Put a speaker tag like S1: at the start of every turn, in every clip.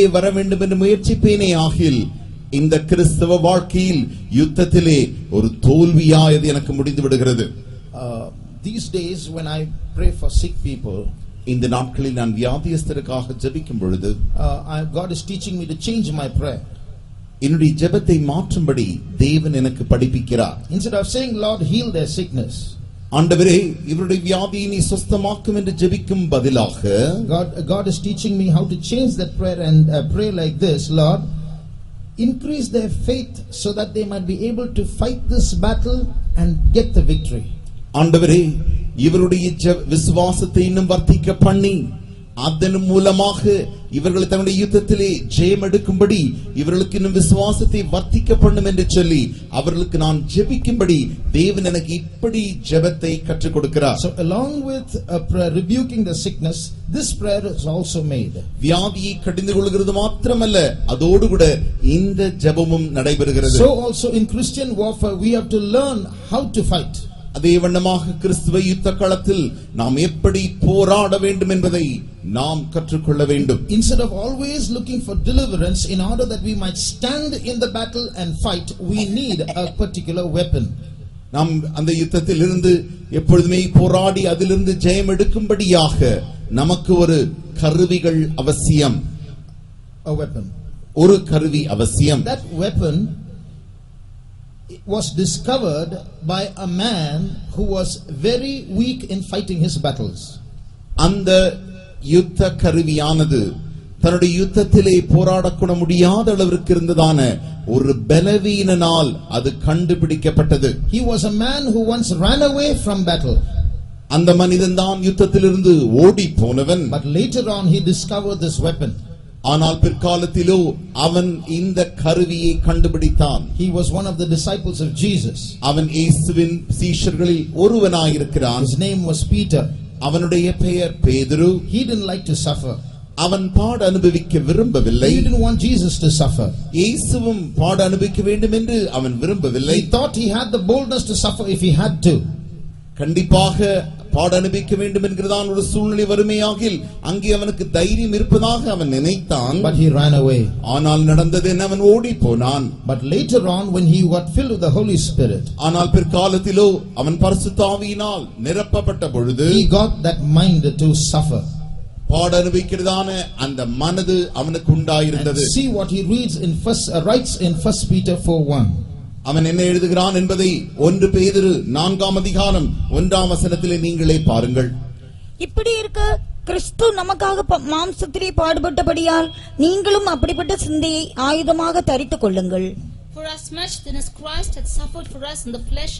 S1: வெளியே வர வேண்டும் என்று முயற்சிப்பேனே ஆகில் இந்த கிறிஸ்தவ வாழ்க்கையில் யுத்தத்திலே ஒரு தோல்வியா இது எனக்கு முடிந்து விடுகிறது
S2: Uh, these days, when I pray for sick people,
S1: இந்த நாட்களில் நான் வியாதியஸ்தருக்காக ஜெபிக்கும் பொழுது
S2: uh, I, God is teaching me to change my prayer.
S1: என்னுடைய ஜெபத்தை மாற்றும்படி தேவன் எனக்கு படிப்பிக்கிறார்
S2: Instead of saying, Lord, heal their sickness,
S1: ஆண்டவரே இவருடைய வியாதியை நீ சுஸ்தமாக்கும் என்று ஜெபிக்கும் பதிலாக
S2: God, God is teaching me how to change that prayer and uh, pray like this Lord, increase their faith so that they might be able to fight this battle and get the victory.
S1: ஆண்டவரே இவருடைய ஜெப- விசுவாசத்தை இன்னும் வர்த்திக்க பண்ணி அதன் மூலமாக இவர்கள் தன்னுடைய யுத்தத்திலே ஜெயம் எடுக்கும்படி இவர்களுக்கு இன்னும் விசுவாசத்தை வர்த்திக்க பண்ணும் என்று சொல்லி அவர்களுக்கு நான் ஜெபிக்கும்படி தேவன் எனக்கு இப்படி ஜெபத்தை கற்றுக் கொடுக்கிறார்
S2: So, along with a prayer rebuking the sickness, this prayer is also made.
S1: வியாதியை கடிந்து கொள்கிறது மாத்திரமல்ல அதோடு கூட இந்த ஜெபமும் நடைபெறுகிறது
S2: So, also in Christian warfare, we have to learn how to fight.
S1: அதே வண்ணமாக கிறிஸ்துவ யுத்த களத்தில் நாம் எப்படி போராட வேண்டும் என்பதை நாம் கற்றுக்கொள்ள வேண்டும்
S2: Instead of always looking for deliverance in order that we might stand in the battle and fight, we need a particular weapon.
S1: நாம் அந்த யுத்தத்தில் இருந்து எப்பொழுதுமே போராடி அதிலிருந்து ஜெயம் எடுக்கும்படியாக நமக்கு ஒரு கருவிகள் அவசியம்
S2: A weapon.
S1: ஒரு கருவி அவசியம்
S2: That weapon was discovered by a man who was very weak in fighting his battles.
S1: அந்த யுத்த கருவியானது தன்னுடைய யுத்தத்திலே போராடக்கூட முடியாத அளவிற்கு இருந்ததான ஒரு பலவீனனால் அது கண்டுபிடிக்கப்பட்டது
S2: He was a man who once ran away from battle,
S1: அந்த மனிதன் தான் யுத்தத்திலிருந்து ஓடி போனவன்
S2: but later on he discovered this weapon.
S1: ஆனால் பிற்காலத்திலோ அவன் இந்த கருவியை கண்டுபிடித்தான்
S2: He was one of the disciples of Jesus.
S1: அவன் இயேசுவின் சீஷர்களில் ஒருவனாயிருக்கிறான்
S2: His name was Peter.
S1: அவனுடைய பெயர் பேதுரு
S2: He didn't like to suffer.
S1: அவன் பாட அனுபவிக்க விரும்பவில்லை
S2: He didn't want Jesus to suffer.
S1: இயேசுவும் பாட அனுபவிக்க வேண்டும் என்று அவன் விரும்பவில்லை
S2: He thought he had the boldness to suffer if he had to.
S1: கண்டிப்பாக பாட அனுபவிக்க வேண்டும் என்கிறதான் ஒரு சூழ்நிலை வறுமையாகில் அங்கே அவனுக்கு தைரியம் இருப்பதாக அவன் நினைத்தான்
S2: But he ran away.
S1: ஆனால் நடந்தது என்ன அவன் ஓடி போனான்
S2: But later on, when he got filled with the Holy Spirit,
S1: ஆனால் பிற்காலத்திலோ அவன் பரிசுத்த ஆவியினால் நிரப்பப்பட்ட பொழுது
S2: he got that mind to suffer.
S1: பாட அனுபவிக்கிறதான அந்த மனது அவனுக்கு
S2: And
S1: உண்டாயிருந்தது
S2: see what he reads in first uh, writes in First Peter 4 1.
S1: அவன் என்ன எழுதுகிறான் என்பதை ஒன்று பேதிரு நான்காம் அதிகாரம் ஒன்றாம் வசனத்திலே நீங்களே பாருங்கள்
S3: இப்படி இருக்க கிறிஸ்து நமக்காக ப- மாம்சத்திலே பாடுபட்டபடியால் நீங்களும் அப்படிப்பட்ட சிந்தையை ஆயுதமாக தரித்துக் கொள்ளுங்கள்
S4: For as much then as Christ had suffered for us in the flesh,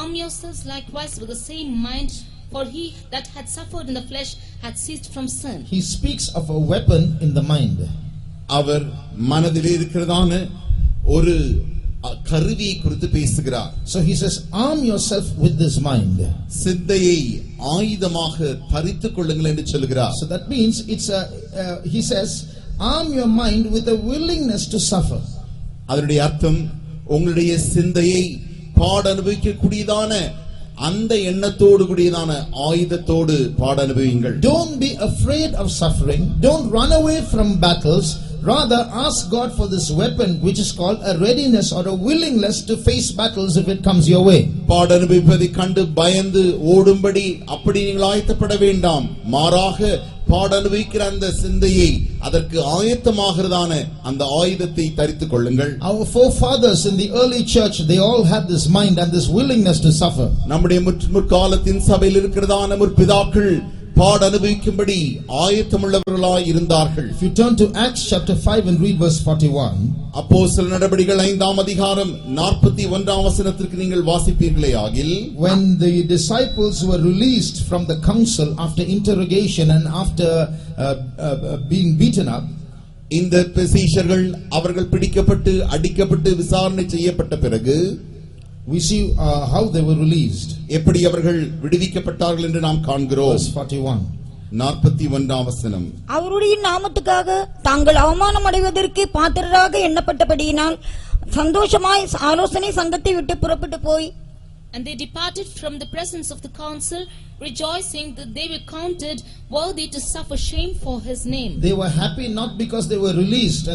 S4: arm yourselves likewise with the same mind, for he that had suffered in the flesh had ceased from sin.
S2: He speaks of a weapon in the mind.
S1: அவர் மனதிலே இருக்கிறதான ஒரு அ- கருவியை குறித்து பேசுகிறார்
S2: So he says, Arm yourself with this mind.
S1: சிந்தையை ஆயுதமாக தரித்துக் கொள்ளுங்கள் என்று சொல்கிறார்
S2: So that means it's a, uh, he says, Arm your mind with a willingness to suffer.
S1: அதனுடைய அர்த்தம் உங்களுடைய சிந்தையை பாட அனுபவிக்கக்கூடியதான அந்த எண்ணத்தோடு கூடியதான ஆயுதத்தோடு பாட அனுபவியுங்கள்
S2: Don't be afraid of suffering. Don't run away from battles. Rather, ask God for this weapon, which is called a readiness or a willingness to face battles if it comes your way.
S1: பாட அனுபவிப்பதை கண்டு பயந்து ஓடும்படி அப்படி நீங்கள் ஆயத்தப்பட வேண்டாம் மாறாக பாட அனுபவிக்கிற அந்த சிந்தையை அதற்கு ஆயத்தமாகிறதான அந்த ஆயுதத்தை தரித்துக் கொள்ளுங்கள்
S2: Our forefathers in the early church, they all had this mind and this willingness to suffer.
S1: நம்முடைய முற்- முற்காலத்தின் சபையில் இருக்கிறதான முற்பிதாக்கள் பாட அனுபவிக்கும்படி ஆயத்தமுள்ளவர்களாய் இருந்தார்கள்
S2: If you turn to Acts chapter 5 and read verse 41,
S1: அப்போ சில நடவடிக்கைகள் ஐந்தாம் அதிகாரம் நாற்பத்தி ஒன்றாம் வசனத்திற்கு நீங்கள் வாசிப்பீர்களே ஆகில்
S2: when the disciples were released from the council after interrogation and after uh, uh, uh, being beaten up,
S1: இந்த சீஷர்கள் அவர்கள் பிடிக்கப்பட்டு அடிக்கப்பட்டு விசாரணை செய்யப்பட்ட பிறகு
S2: we see uh, how they were released.
S1: எப்படி அவர்கள் விடுவிக்கப்பட்டார்கள் என்று நாம் காண்கிறோம்
S2: Verse 41.
S1: நாற்பத்தி ஒன்றாம் வசனம்
S3: அவருடைய நாமத்துக்காக தாங்கள் அவமானம் அடைவதற்கு பாத்திரராக எண்ணப்பட்டபடியினால் சந்தோஷமாய் ஆலோசனை சங்கத்தை விட்டு புறப்பட்டு போய்
S4: And they departed from the presence of the council, rejoicing that they were counted worthy to suffer shame for his name.
S2: They were happy not because they were released